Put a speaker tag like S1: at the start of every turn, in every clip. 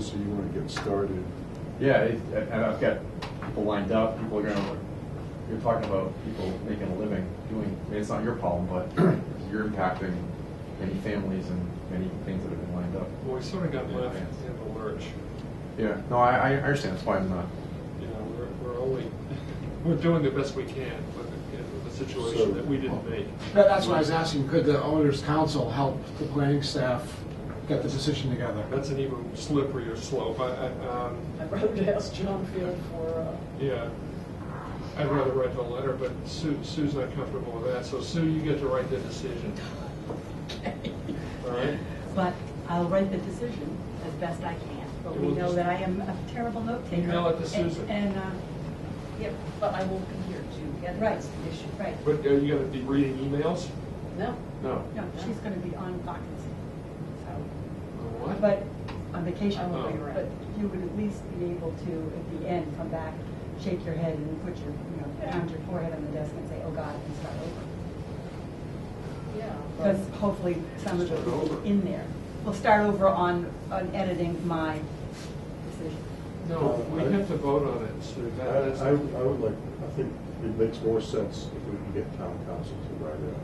S1: so you want to get started.
S2: Yeah, it- and I've got people lined up, people are gonna, you're talking about people making a living, doing, I mean, it's not your problem, but you're impacting many families and many things that have been lined up.
S3: Well, we sort of got
S2: Yeah,
S3: left
S2: yeah.
S3: in the lurch.
S2: Yeah, no, I, I understand, that's why I'm not,
S3: You know, we're, we're only, we're doing the best we can with, the- you know, with the
S1: So-
S3: situation that we didn't make.
S4: That- That's why I was asking, could the owner's council help the planning staff get the decision together?
S3: That's an even slipperier slope. I, I, um,
S5: I wrote to ask John Field for, uh,
S3: yeah. I'd rather write the letter, but Sue, Sue's not comfortable with that, so Sue, you get to write the decision, all right?
S6: But I'll write the decision as best I can, but we
S3: We'll
S6: know
S3: just-
S6: that I am a terrible note taker.
S3: Email it to
S6: And-
S3: Susan.
S6: And, uh,
S5: yeah, but I won't be here to get
S6: right,
S5: rights issue.
S6: right.
S3: But are you gonna be reading emails?
S5: No,
S3: No.
S6: No, she's gonna be on vacation, so,
S3: What? Oh.
S6: but on vacation,
S5: I won't
S3: be
S6: but
S5: around.
S6: you would at least be able to, at the end, come back, shake your head and put your, you know,
S5: Yeah.
S6: pound your forehead on the desk and say, oh God, and start over.
S5: yeah. but-
S6: Because hopefully some of the
S3: Start
S6: people
S3: over.
S6: in there will start over on, on editing my decision.
S3: No, we have to vote on it, Sue.
S1: I,
S3: That- that's-
S1: I I would like, I think it makes more sense if we can get town council to write it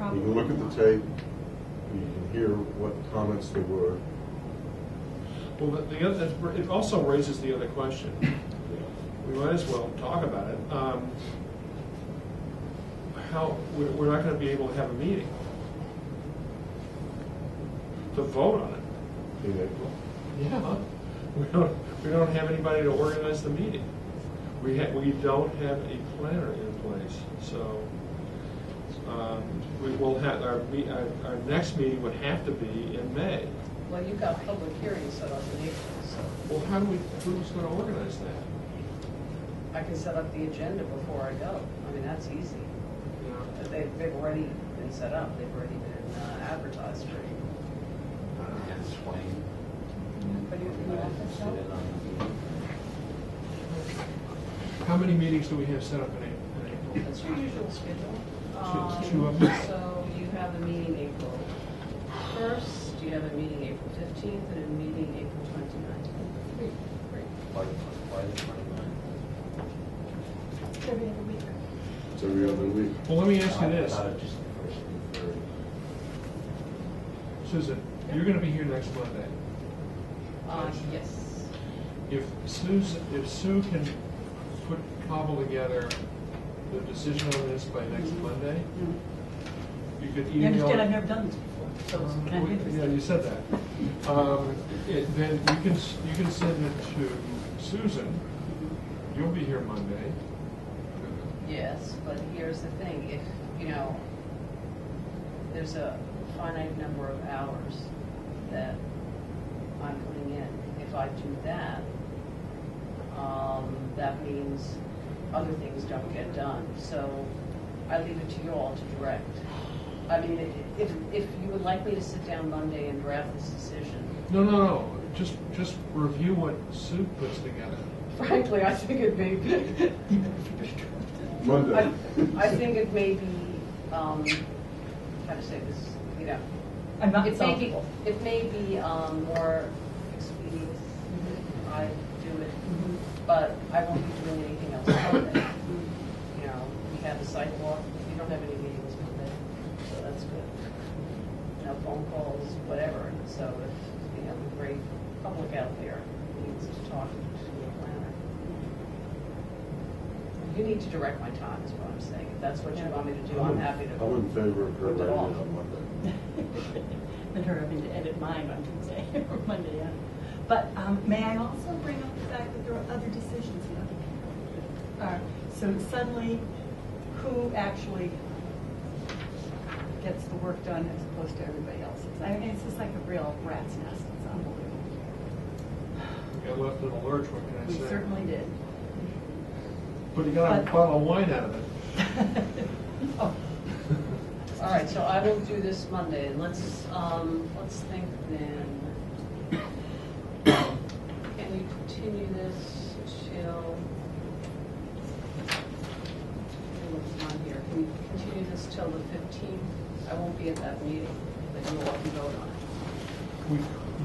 S1: out. You can look at the
S6: Probably.
S1: tape, you can hear what comments there were.
S3: Well, the- the other, it also raises the other question. We might as well talk about it. Um, How, we're we're not going to be able to have a meeting to vote on it.
S1: in April.
S3: Yeah. We don't, we don't have anybody to organize the meeting. We ha we don't have a planner in place, so um, we will have, our, me- our our next meeting would have to be in May.
S5: Well, you've got public hearings set up in April, so
S3: Well, how do we, who's going to organize that?
S5: I can set up the agenda before I go. I mean, that's easy. But They, they've already been set up, they've already been uh, advertised for you.
S7: and Swain.
S6: Put it in the office, though.
S3: How many meetings do we have set up in A- in April?
S5: That's your usual schedule.
S3: Two- two of
S5: Um,
S3: them.
S5: So you have a meeting April first, you have a meeting April fifteenth, and a meeting April twenty-ninth.
S7: Why, why the twenty-nine?
S6: Every other week.
S1: It's every other week.
S3: Well, let me ask you this,
S7: Not just the first and third.
S3: Susan, you're gonna be here next Monday.
S5: Uh, yes.
S3: If Sue's, if Sue can put, cobble together the decision on this by next Monday,
S6: Mm.
S3: you could email.
S6: You understand, I've never done this before, so it's kind of
S3: We- Yeah,
S6: interesting.
S3: you said that. Um, it- Then you can, s- you can send it to Susan, you'll be here Monday.
S5: Yes, but here's the thing, if, you know, there's a finite number of hours that I'm putting in. If I do that, um, that means other things don't get done. So I leave it to you all to direct. I mean, i- if, if you would like me to sit down Monday and draft this decision,
S3: No, no, no, just, just review what Sue puts together.
S5: frankly, I think it may be I
S1: Monday.
S5: I think it may be, um, how to say this, you know,
S6: I'm not
S5: it may be,
S6: solvable.
S5: it may be, um, more expedient if I do it, but I won't be doing anything else Monday. You know, we have a sidewalk, we don't have any meetings Monday, so that's good. No phone calls, whatever, so if, you know, the great public out there needs to talk to the planner. You need to direct my time, is what I'm saying. If that's what you want me to do, I'm happy to.
S1: I'm in favor of her
S5: Put it
S1: writing
S5: off.
S1: it on Monday.
S6: And her having to edit mine on Tuesday or Monday, yeah. But um, may I also bring up the fact that there are other decisions in other people? Uh, So suddenly, who actually gets the work done as opposed to everybody else? It's- I mean, it's just like a real rat's nest, it's unbelievable.
S3: We Got left in a lurch, what can I
S6: We
S3: say?
S6: certainly did.
S3: But you got a
S6: But-
S3: bottle of wine out of it.
S6: Oh,
S5: All right, so I will do this Monday, and let's, um, let's think then. Can we continue this till? Oh, It's not here. Can we continue this till the fifteenth? I won't be at that meeting, but you all can vote on it.
S3: We